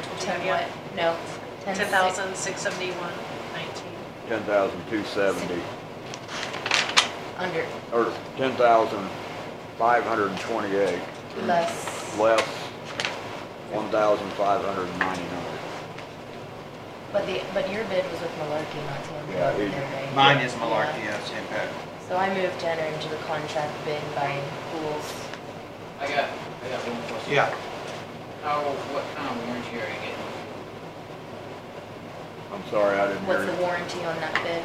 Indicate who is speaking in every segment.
Speaker 1: what? No.
Speaker 2: Ten
Speaker 1: ten six.
Speaker 2: thousand, six seventy-one, nineteen.
Speaker 3: ten thousand two seventy,
Speaker 1: Under,
Speaker 3: or ten thousand five hundred and twenty-eight,
Speaker 1: less,
Speaker 3: less one thousand five hundred and ninety-nine.
Speaker 1: but the, but your bid was with Malarkey, not Tampa.
Speaker 3: Yeah, it-
Speaker 4: Mine is malarkey, yes, impact.
Speaker 1: So I moved to enter into the contract bid by Pools.
Speaker 5: I got, I got one question.
Speaker 4: Yeah,
Speaker 5: How, what kind of warranty are you getting?
Speaker 3: I'm sorry, I didn't hear
Speaker 1: What's the
Speaker 3: you.
Speaker 1: warranty on that bid?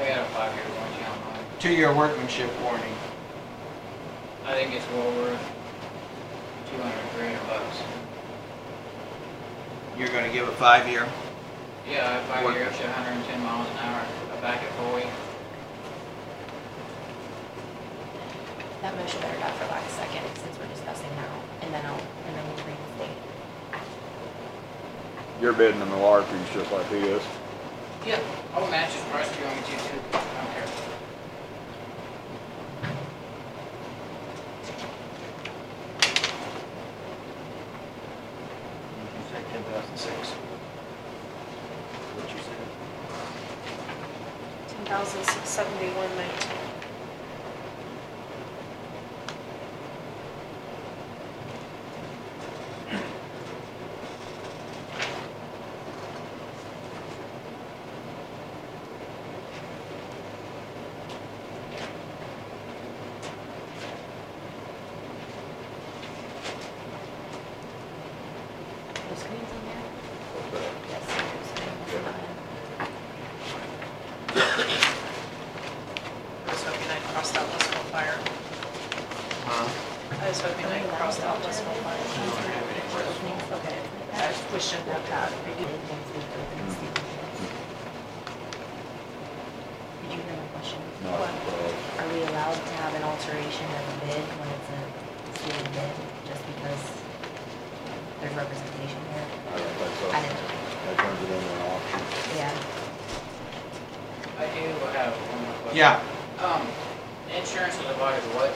Speaker 5: I got a five-year warranty on mine.
Speaker 4: two-year workmanship warning.
Speaker 5: I think it's well worth two hundred, three hundred bucks.
Speaker 4: You're gonna give a five-year?
Speaker 5: Yeah, if I
Speaker 4: What-
Speaker 5: five years, a hundred and ten miles an hour, I back it forty.
Speaker 1: That motion better not for lack of second, since we're discussing now, and then I'll, and then we'll reinstate.
Speaker 3: You're bidding the Malarkey's just like he is.
Speaker 5: Yep. I'll match his price if you want me to too. I don't care.
Speaker 4: You said ten thousand six. What you said?
Speaker 2: Ten thousand, six seventy-one, nineteen.
Speaker 1: The screen's on there?
Speaker 3: What's that?
Speaker 1: Yes, the screen's on there.
Speaker 2: I was hoping I'd crossed out Westfield Fire.
Speaker 4: Huh?
Speaker 2: I was hoping I'd crossed out Westfield Fire.
Speaker 4: don't have any
Speaker 1: Openings, okay.
Speaker 2: I wish I'd have had.
Speaker 1: Did
Speaker 4: Mm-hmm.
Speaker 1: you hear my question?
Speaker 3: No, it's, uh,
Speaker 1: Are we allowed to have an alteration of a bid when it's a sealed bid, just because there's representation here?
Speaker 3: I don't think so.
Speaker 1: I didn't,
Speaker 3: That turns it into an auction.
Speaker 1: yeah.
Speaker 5: I do have one more question.
Speaker 4: Yeah,
Speaker 5: Um, insurance is about what?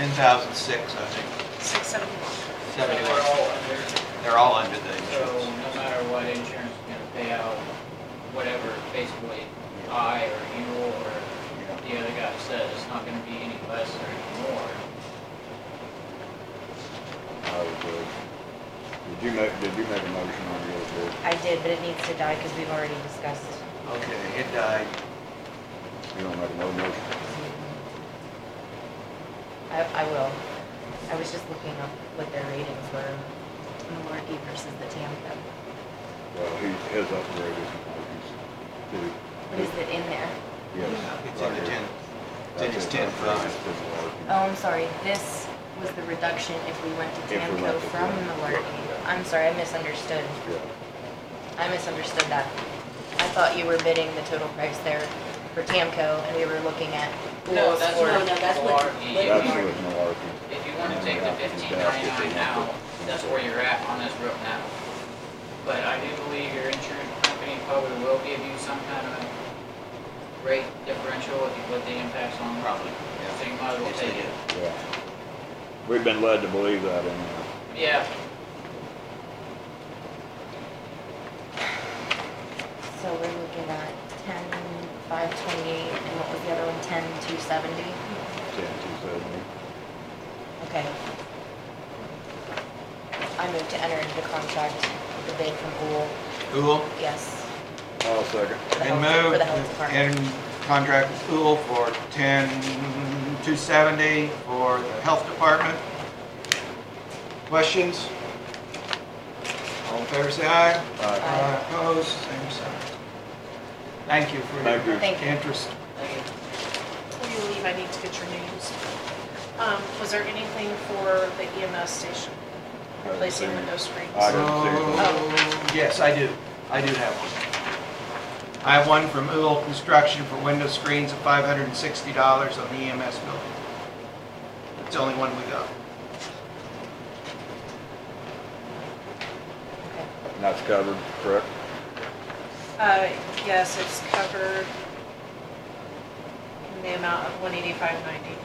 Speaker 4: ten thousand six, I think,
Speaker 2: Six seventy-one.
Speaker 5: So
Speaker 4: seventy-one.
Speaker 5: we're all under.
Speaker 4: They're all under the
Speaker 5: So
Speaker 4: insurance.
Speaker 5: no matter what insurance is gonna pay out, whatever basically I or you or the other guy says, it's not gonna be any less or any more.
Speaker 3: I would agree. Did you make, did you make a motion on the other bid?
Speaker 1: I did, but it needs to die because we've already discussed.
Speaker 4: Okay, it died.
Speaker 3: You don't make no motion.
Speaker 1: I, I will. I was just looking up what their ratings were, Malarkey versus the Tampa.
Speaker 3: Well, he, his upgrade is Malarkey's too.
Speaker 1: What is it in there?
Speaker 3: Yes.
Speaker 4: It's in the
Speaker 3: right here.
Speaker 4: ten. It's in
Speaker 3: That's
Speaker 4: his
Speaker 3: his
Speaker 4: ten
Speaker 3: upgrade,
Speaker 4: five.
Speaker 3: it's his Malarkey.
Speaker 1: Oh, I'm sorry, this was the reduction if we went to
Speaker 3: If we
Speaker 1: Tamco
Speaker 3: went to
Speaker 1: from
Speaker 3: Tamco, yeah.
Speaker 1: Malarkey. I'm sorry, I misunderstood.
Speaker 3: Yeah.
Speaker 1: I misunderstood that. I thought you were bidding the total price there for Tamco and we were looking at pools
Speaker 5: that's
Speaker 1: for.
Speaker 5: what- No, that's what-
Speaker 3: That's with Malarkey.
Speaker 5: If you wanna take the fifteen ninety-nine now, that's where you're at on this road now. But I do believe your insurance company probably will give you some kind of rate differential if you put the impacts on.
Speaker 4: Probably,
Speaker 5: So you might as well
Speaker 4: Yes, they
Speaker 5: take it.
Speaker 4: did.
Speaker 3: Yeah. We've been led to believe that in uh, there.
Speaker 5: Yeah,
Speaker 1: So we're looking at ten, five twenty-eight and what was the other one, ten, two seventy?
Speaker 3: ten two seventy.
Speaker 1: Okay. I move to enter into the contract, the bid from Pool,
Speaker 4: Uhl,
Speaker 1: yes.
Speaker 3: I'll second.
Speaker 1: for the
Speaker 4: and
Speaker 1: health- For
Speaker 4: move,
Speaker 1: the health department.
Speaker 4: and contract with Uhl for ten, two seventy for the health department. Questions? All in favor, say aye.
Speaker 3: Aye.
Speaker 4: Uh, Opposed, same sign. Thank you for
Speaker 3: Thank you.
Speaker 4: your
Speaker 1: Thank you.
Speaker 4: interest.
Speaker 5: thank you.
Speaker 2: Before you leave, I need to get your names. Um, was there anything for the EMS station, replacing window screens?
Speaker 3: I didn't see it.
Speaker 1: Oh.
Speaker 4: So, Yes, I do. I do have one. I have one from Uhl Construction for window screens of five hundred and sixty dollars on the EMS building. It's the only one we got.
Speaker 1: Okay.
Speaker 3: And that's covered, correct?
Speaker 2: Uh, yes, it's covered in the amount of one eighty-five ninety.